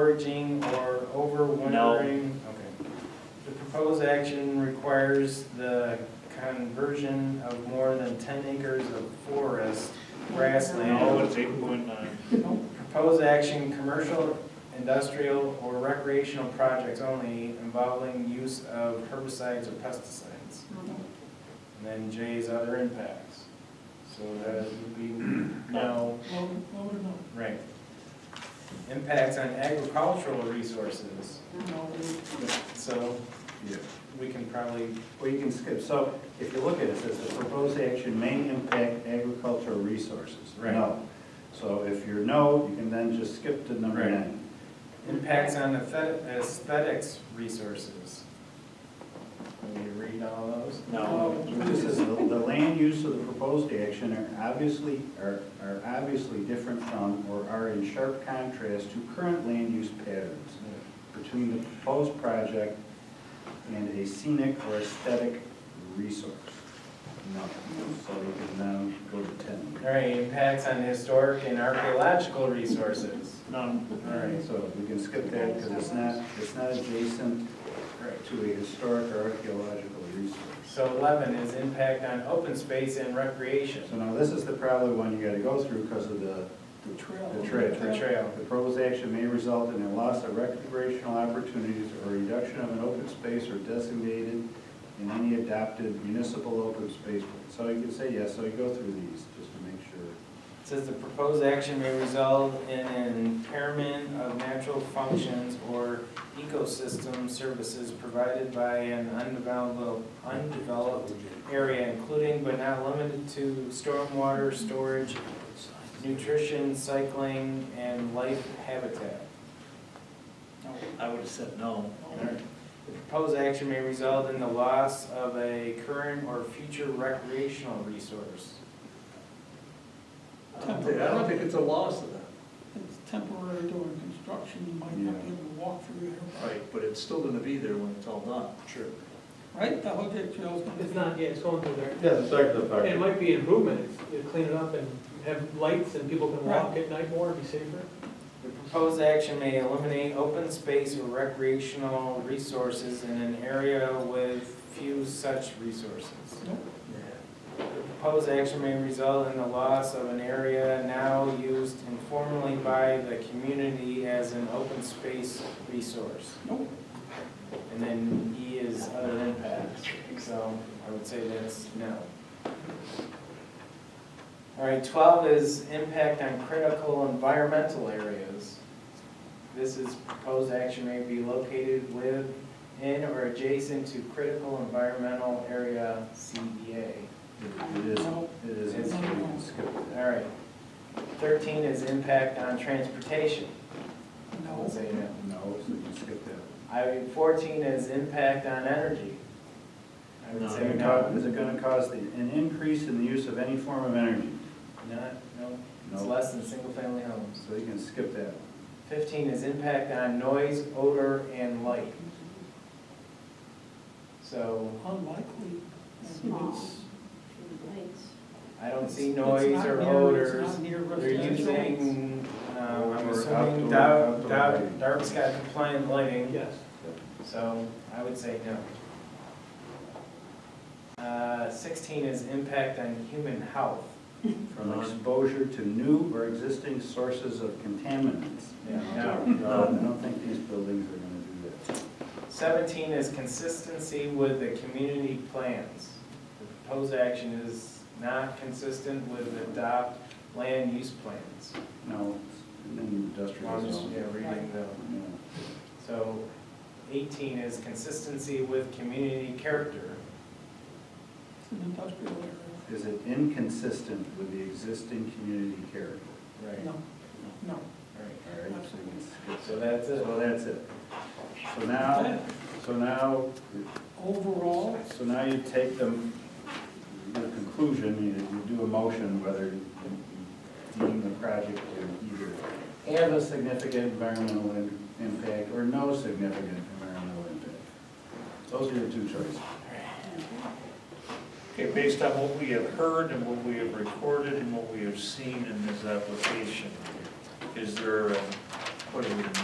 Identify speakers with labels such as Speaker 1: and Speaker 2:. Speaker 1: foraging or overwintering? Okay. The proposed action requires the conversion of more than ten acres of forest,
Speaker 2: No,
Speaker 1: grassland.
Speaker 2: it's eight point nine.
Speaker 1: Proposed action, commercial, industrial, or recreational projects only involving use of herbicides or pesticides. And then J's other impacts. So that would be no, right. Impacts on agricultural resources, so
Speaker 3: Yeah.
Speaker 1: we can probably,
Speaker 4: Well, you can skip, so if you look at it, it says the proposed action may impact agricultural resources.
Speaker 1: Right.
Speaker 4: No. So if you're no, you can then just skip to number
Speaker 1: Right.
Speaker 4: nine.
Speaker 1: impacts on aesthet- aesthetics resources. Can you read all those?
Speaker 2: No,
Speaker 4: This is, the the land use of the proposed action are obviously, are are obviously different from or are in sharp contrast to current land use patterns between the proposed project and a scenic or aesthetic resource. No, so you can now go to ten.
Speaker 1: All right, impacts on historic and archaeological resources.
Speaker 2: none.
Speaker 4: All right, so we can skip that because it's not, it's not adjacent
Speaker 1: Right.
Speaker 4: to a historic or archaeological resource.
Speaker 1: So eleven is impact on open space and recreation.
Speaker 4: So now this is the probably one you gotta go through because of the,
Speaker 5: The trail.
Speaker 4: the trail.
Speaker 1: The trail.
Speaker 4: The proposed action may result in a loss of recreational opportunities or reduction of an open space or designated in any adopted municipal open space. So you can say yes, so you go through these just to make sure.
Speaker 1: Says the proposed action may result in an impairment of natural functions or ecosystem services provided by an undeveloped, undeveloped area, including but not limited to stormwater storage, nutrition, cycling, and life habitat.
Speaker 2: I would have said no.
Speaker 1: The proposed action may result in the loss of a current or future recreational resource.
Speaker 5: I don't think- I don't think
Speaker 6: it's a loss of that,
Speaker 5: It's temporary during construction, you might not be able to walk through there.
Speaker 6: right, but it's still gonna be there when it's all done. True.
Speaker 5: Right, the whole big trail's gonna be.
Speaker 7: It's not, yeah, it's going through there.
Speaker 3: Yeah, it's like the
Speaker 7: And it
Speaker 3: fact,
Speaker 7: might be an improvement, if you clean it up and have lights and people can walk at night more, be safer.
Speaker 1: The proposed action may eliminate open space or recreational resources in an area with few such resources. The proposed action may result in the loss of an area now used informally by the community as an open space resource.
Speaker 5: Nope.
Speaker 1: And then E is other impacts, so I would say that's no. All right, twelve is impact on critical environmental areas. This is proposed action may be located with, in, or adjacent to critical environmental area CEA.
Speaker 4: It is, it is, you can skip that.
Speaker 1: All right. Thirteen is impact on transportation. I
Speaker 5: No.
Speaker 1: would say no.
Speaker 4: No, so you can skip that.
Speaker 1: I, fourteen is impact on energy. I would
Speaker 2: No.
Speaker 1: say
Speaker 4: Is it
Speaker 1: no.
Speaker 4: gonna- is it gonna cause the- an increase in the use of any form of energy?
Speaker 1: Not, no, it's
Speaker 4: No.
Speaker 1: less than single-family homes.
Speaker 4: So you can skip that. one.
Speaker 1: Fifteen is impact on noise, odor, and light. So
Speaker 5: Unlikely. I think
Speaker 8: Small.
Speaker 5: it's-
Speaker 1: I don't see
Speaker 5: it's
Speaker 1: noise
Speaker 5: not
Speaker 1: or
Speaker 5: near- it's
Speaker 1: odors.
Speaker 5: not near
Speaker 1: They're
Speaker 5: residential.
Speaker 1: using, um, I'm
Speaker 4: Or
Speaker 1: assuming
Speaker 4: outdoor-
Speaker 1: dark,
Speaker 4: outdoor
Speaker 1: dark,
Speaker 4: lighting.
Speaker 1: dark sky compliant lighting,
Speaker 7: Yes.
Speaker 1: so I would say no. Uh, sixteen is impact on human health.
Speaker 4: From exposure to new or existing sources of contaminants.
Speaker 1: Yeah, no.
Speaker 4: No, I don't think these buildings are gonna do that.
Speaker 1: Seventeen is consistency with the community plans. The proposed action is not consistent with the adopt land use plans.
Speaker 4: No, it's in an
Speaker 1: Well, I'm
Speaker 4: industrial
Speaker 1: just,
Speaker 4: zone.
Speaker 1: yeah, reading the,
Speaker 4: Yeah.
Speaker 1: so eighteen is consistency with community character.
Speaker 5: It's an industrial area.
Speaker 4: Is it inconsistent with the existing community character?
Speaker 1: Right.
Speaker 5: No, no.
Speaker 1: Right,
Speaker 4: All right, so you can skip
Speaker 1: so that's
Speaker 4: that.
Speaker 1: it.
Speaker 4: So that's it. So now, so now,
Speaker 5: Overall,
Speaker 4: so now you take them, your conclusion, you you do a motion whether you deem the project to either have a significant environmental im- impact or no significant environmental impact. Those are your two choices.
Speaker 2: Okay, based on what we have heard and what we have recorded and what we have seen in this application, is there, a- what do we